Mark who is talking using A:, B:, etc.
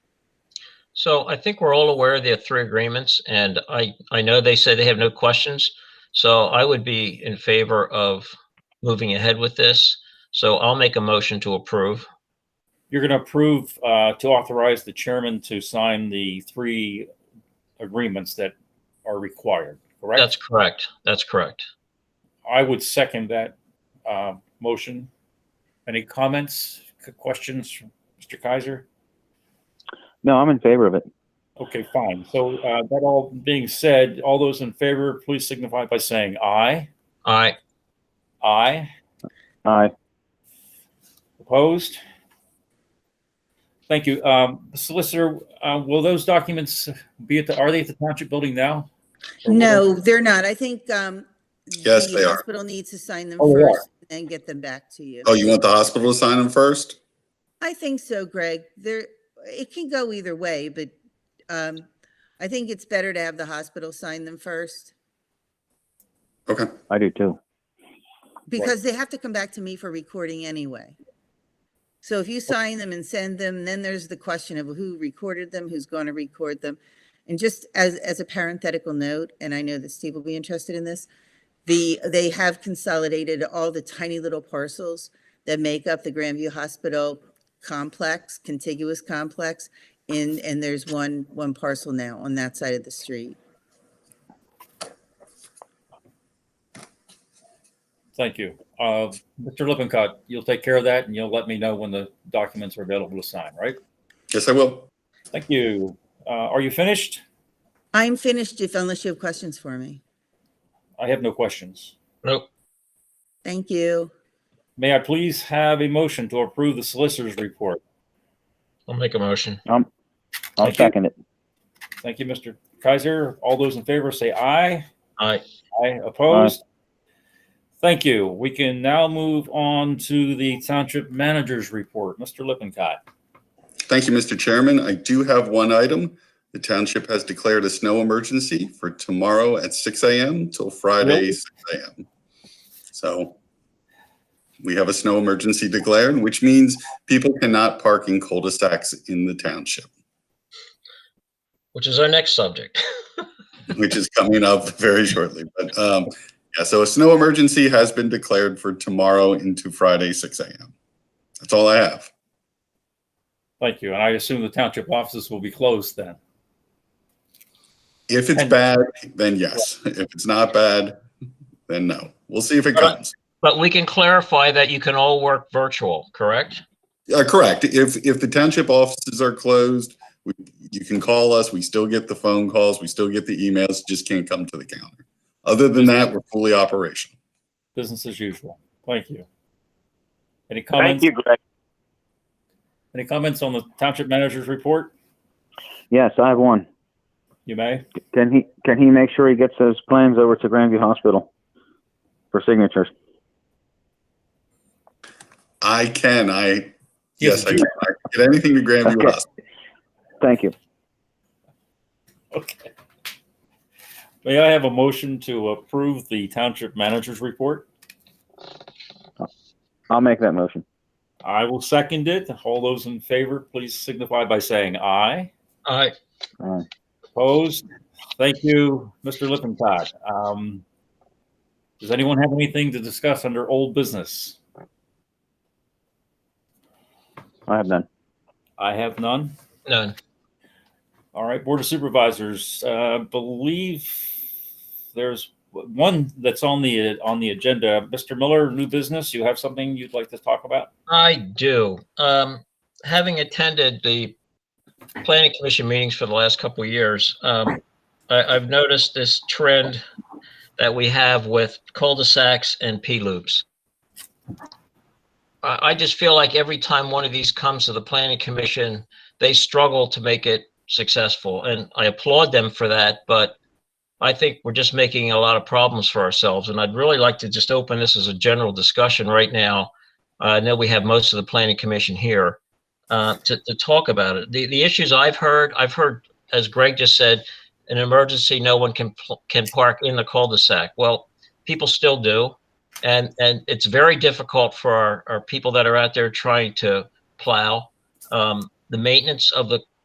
A: So I think we're all aware of the three agreements, and I, I know they say they have no questions. So I would be in favor of moving ahead with this. So I'll make a motion to approve.
B: You're going to approve uh, to authorize the chairman to sign the three agreements that are required, correct?
A: That's correct. That's correct.
B: I would second that uh, motion. Any comments, c- questions, from Mr. Kaiser?
C: No, I'm in favor of it.
B: Okay, fine. So uh, that all being said, all those in favor, please signify by saying aye.
A: Aye.
B: Aye.
C: Aye.
B: Opposed? Thank you. Um, Solicitor, uh, will those documents be at the, are they at the township building now? Or will
D: No, they're not. I think, um.
E: Yes,
D: the
E: they are.
D: Hospital needs to sign them
B: Oh, they are.
D: first and get them back to you.
E: Oh, you want the hospital to sign them first?
D: I think so, Greg. There, it can go either way, but, um, I think it's better to have the hospital sign them first
E: Okay,
C: I do too.
D: because they have to come back to me for recording anyway. So if you sign them and send them, then there's the question of who recorded them, who's going to record them. And just as, as a parenthetical note, and I know that Steve will be interested in this, the, they have consolidated all the tiny little parcels that make up the Grandview Hospital complex, contiguous complex. And, and there's one, one parcel now on that side of the street.
B: Thank you. Uh, Mr. Lippincott, you'll take care of that and you'll let me know when the documents are available to sign, right?
E: yes, I will.
B: Thank you. Uh, are you finished?
D: I'm finished if, unless you have questions for me.
B: I have no questions.
A: Nope.
D: Thank you.
B: May I please have a motion to approve the solicitor's report?
A: I'll make a motion.
C: I'll
B: Thank you.
C: second it.
B: Thank you, Mr. Kaiser. All those in favor say aye.
A: Aye.
B: Aye. Opposed? Thank you. We can now move on to the township manager's report. Mr. Lippincott.
E: Thank you, Mr. Chairman. I do have one item. The township has declared a snow emergency for tomorrow at six AM till Friday,
B: Really?
E: six AM. So we have a snow emergency declared, which means people cannot park in cul-de-sacs in the township,
A: Which is our next subject.
E: which is coming up very shortly. But um, yeah, so a snow emergency has been declared for tomorrow into Friday, six AM. That's all I have.
B: Thank you. And I assume the township offices will be closed then.
E: If it's
B: And-
E: bad, then yes. If it's not bad, then no. We'll see if it
A: Alright.
E: comes.
A: But we can clarify that you can all work virtual, correct?
E: Uh, correct. If if the township offices are closed, we, you can call us. We still get the phone calls. We still get the emails. Just can't come to the counter. Other than that, we're fully operational.
B: Business as usual. Thank you. Any
F: Thank
B: comments?
F: you, Greg.
B: Any comments on the township manager's report?
C: Yes, I have one.
B: You may.
C: Can he, can he make sure he gets those plans over to Grandview Hospital for signatures?
E: I can. I
B: Yes,
E: yes, I can. I can get anything to Grandview
C: Okay.
E: Hospital.
C: Thank you.
B: Okay. May I have a motion to approve the township manager's report?
C: I'll make that motion.
B: I will second it. All those in favor, please signify by saying aye.
A: Aye.
C: All right.
B: Opposed? Thank you, Mr. Lippincott. Um, does anyone have anything to discuss under old business?
C: I have none.
B: I have none.
A: None.
B: All right, Board of Supervisors, uh, believe there's one that's on the, on the agenda. Mr. Miller, new business, you have something you'd like to talk about?
A: I do. Um, having attended the planning commission meetings for the last couple of years, um, I, I've noticed this trend that we have with cul-de-sacs and P-loops. I, I just feel like every time one of these comes to the planning commission, they struggle to make it successful, and I applaud them for that, but I think we're just making a lot of problems for ourselves, and I'd really like to just open this as a general discussion right now I know we have most of the planning commission here uh, to, to talk about it. The, the issues I've heard, I've heard, as Greg just said, an emergency, no one can, pl- can park in the cul-de-sac. Well, people still do. And, and it's very difficult for our, our people that are out there trying to plow. Um, The maintenance of the